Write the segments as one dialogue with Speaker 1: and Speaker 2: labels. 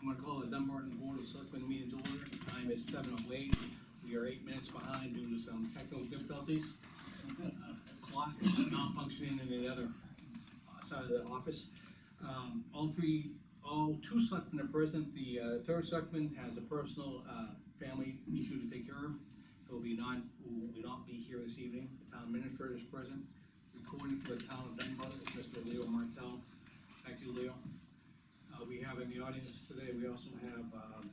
Speaker 1: I'm gonna call the Dunbarton Board of Selectmen meeting to order. Time is seven oh eight. We are eight minutes behind due to some technical difficulties. Clock is not functioning in the other uh, side of the office. Um, all three, all two selectmen are present. The, uh, third selectman has a personal, uh, family issue to take care of. He'll be not, will not be here this evening. The town administrator is present. Recording for the town of Dunbar is Mr. Leo Martell. Thank you, Leo. Uh, we have in the audience today, we also have, um,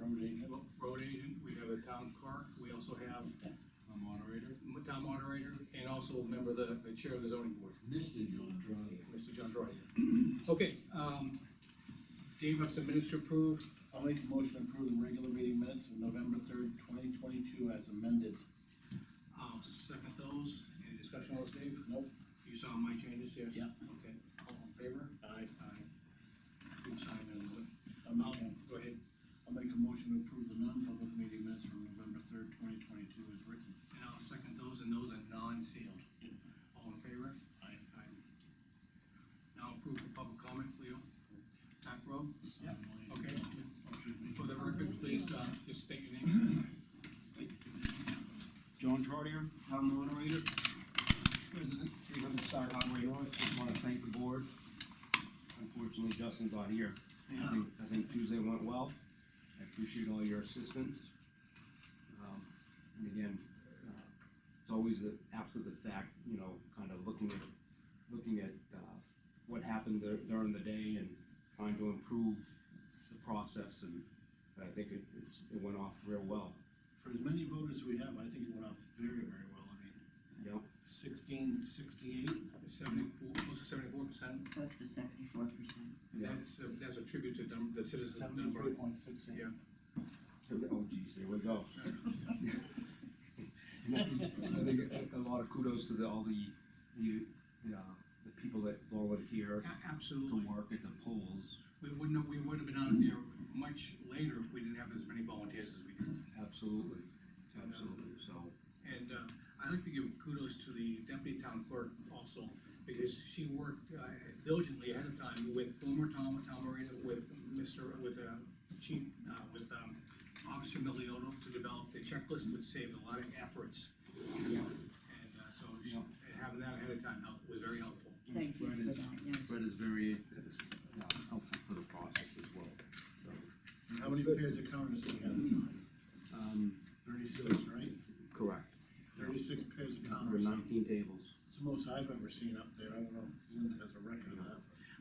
Speaker 2: Road agent,
Speaker 1: ro- road agent, we have a town clerk, we also have
Speaker 2: a moderator,
Speaker 1: m- town moderator, and also a member of the, the chair of the zoning board,
Speaker 2: Mr. John Trotter.
Speaker 1: Mr. John Troy. Okay, um, Dave, have some minutes to approve,
Speaker 2: I'll make a motion to approve the regular meeting minutes of November third, twenty twenty-two as amended.
Speaker 1: I'll second those, any discussion on those, Dave?
Speaker 2: Nope.
Speaker 1: You saw my changes, yes?
Speaker 2: Yeah.
Speaker 1: Okay, all in favor?
Speaker 2: Aye.
Speaker 1: Aye. You sign it,
Speaker 2: I'll make,
Speaker 1: I'll,
Speaker 2: a-
Speaker 1: go ahead,
Speaker 2: I'll make a motion to approve the non-public meeting minutes from November third, twenty twenty-two as written.
Speaker 1: and I'll second those, and those are non-sealed.
Speaker 2: Yeah.
Speaker 1: All in favor?
Speaker 2: Aye.
Speaker 1: Aye. Now approve for public comment, Leo. Back row,
Speaker 2: Yep.
Speaker 1: okay.
Speaker 2: Motion made.
Speaker 1: For the record, please, uh, just state your name.
Speaker 3: John Trotter, town moderator. President, three hundred Star Highway North, just wanna thank the board. Unfortunately, Justin's not here. I think, I think Tuesday went well. I appreciate all your assistance. Um, And again, uh, it's always the, after the fact, you know, kind of looking at, looking at, uh, what happened dur- during the day and trying to improve the process and and I think it, it's, it went off real well,
Speaker 2: For as many voters we have, I think it went off very, very well, I mean,
Speaker 3: you know?
Speaker 2: sixteen sixty-eight.
Speaker 1: Seventy-four, close to seventy-four percent,
Speaker 4: close to seventy-four percent.
Speaker 1: and that's, uh, that's a tribute to Dun- the citizens of
Speaker 2: Seventy-three
Speaker 1: Dunbar.
Speaker 2: point six eight.
Speaker 1: Yeah.
Speaker 3: Oh geez, there we go. And I think- I think a a lot of kudos to the, all the, the, the, uh, the people that volunteer here
Speaker 1: A-
Speaker 3: to
Speaker 1: Absolutely,
Speaker 3: work at the polls,
Speaker 1: we wouldn't, have- we would have been out there much later if we didn't have as many volunteers as we do.
Speaker 3: absolutely, absolutely, so.
Speaker 1: And uh, I'd like to give kudos to the deputy town clerk also, because she worked uh, diligently ahead of time with former Tom, Tom Moreno, with Mr., with uh, Chief, uh, with um, Officer Miliotto to develop the checklist would save a lot of efforts. And uh, so she-
Speaker 3: Yeah.
Speaker 1: and having that ahead of time helped, was very helpful.
Speaker 4: Thank you for that, yes.
Speaker 3: Fred is very, uh, helpful for the process as well, so,
Speaker 2: How many pairs of counters do we have?
Speaker 3: um,
Speaker 2: Thirty-six, right?
Speaker 3: correct.
Speaker 2: Thirty-six pairs of
Speaker 3: There
Speaker 2: counters.
Speaker 3: are nineteen tables.
Speaker 2: It's the most I've ever seen up there, I don't know if Linda has a record of that.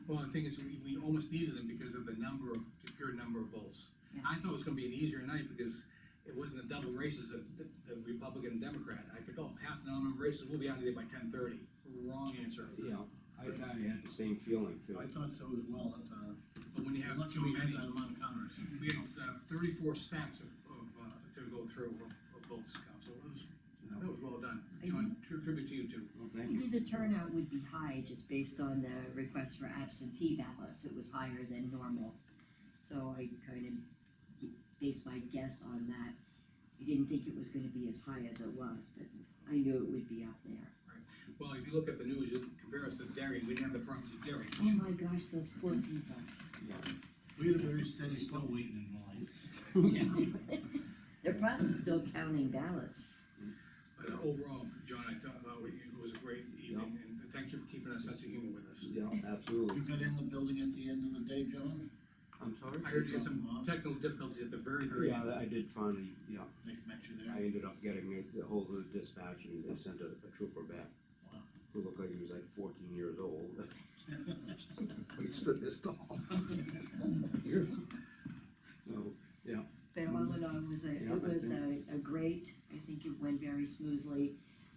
Speaker 1: Well, the thing is, we, we almost needed them because of the number of, the pure number of votes. I
Speaker 4: Yes.
Speaker 1: thought it was gonna be an easier night because it wasn't a double races of the the Republican and Democrat. I think, oh, half the nominal races will be out of there by ten thirty. Wrong answer.
Speaker 3: Yeah, I, I had the same feeling too.
Speaker 2: I thought so as well, at, uh,
Speaker 1: But when you have
Speaker 2: lucky
Speaker 1: so
Speaker 2: we had
Speaker 1: many,
Speaker 2: that amount of counters.
Speaker 1: we had uh, thirty-four stacks of, of, uh, to go through of of votes, council. It was, that was well done. John, tri- tribute to you too.
Speaker 3: Well, thank you.
Speaker 4: Maybe the turnout would be high just based on the request for absentee ballots, it was higher than normal. So I kind of based my guess on that. I didn't think it was gonna be as high as it was, but I knew it would be up there.
Speaker 1: Well, if you look at the news, you compare us to Derry, we didn't have the problems of Derry.
Speaker 4: Oh my gosh, those poor people.
Speaker 2: We had a very steady flow.
Speaker 5: waiting in line.
Speaker 4: They're probably still counting ballots.
Speaker 1: But uh, overall, John, I thought thought it was a great evening and thank you for keeping our sense of humor with us.
Speaker 3: Yeah, absolutely.
Speaker 2: You got in the building at the end of the day, John?
Speaker 3: I'm sorry?
Speaker 1: I heard you had some technical difficulties at the very, very
Speaker 3: Yeah,
Speaker 1: end.
Speaker 3: I did finally, yeah,
Speaker 2: They met you
Speaker 3: I
Speaker 2: there?
Speaker 3: ended up getting a- a hold of the dispatch and they sent a, a trooper back.
Speaker 2: Wow.
Speaker 3: Who looked like he was like fourteen years old. But he stood this tall. So, yeah,
Speaker 4: But all in all, it was a,
Speaker 3: Yeah,
Speaker 4: it
Speaker 3: I
Speaker 4: was a, a great, I think it went very smoothly.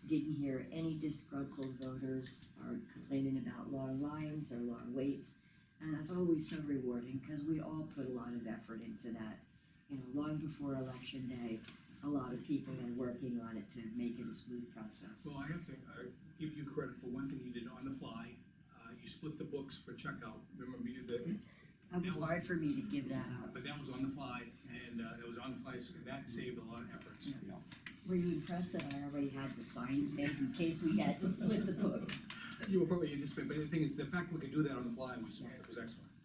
Speaker 4: Didn't hear any disgruntled voters or complaining about long lines or long waits. And that's always so rewarding, cause we all put a lot of effort into that. You know, long before election day, a lot of people are working on it to make it a smooth process.
Speaker 1: Well, I have to, uh, give you credit for one thing you did on the fly. Uh, you split the books for checkout, remember you did,
Speaker 4: It was
Speaker 1: that was-
Speaker 4: hard for me to give that up.
Speaker 1: but that was on the fly, and, uh, it was on the fly, so that saved a lot of efforts.
Speaker 3: yeah.
Speaker 4: Were you impressed that I already had the signs made in case we had to split the books?
Speaker 1: You were probably anticipating, but the thing is, the fact we could do that on the fly was, was excellent.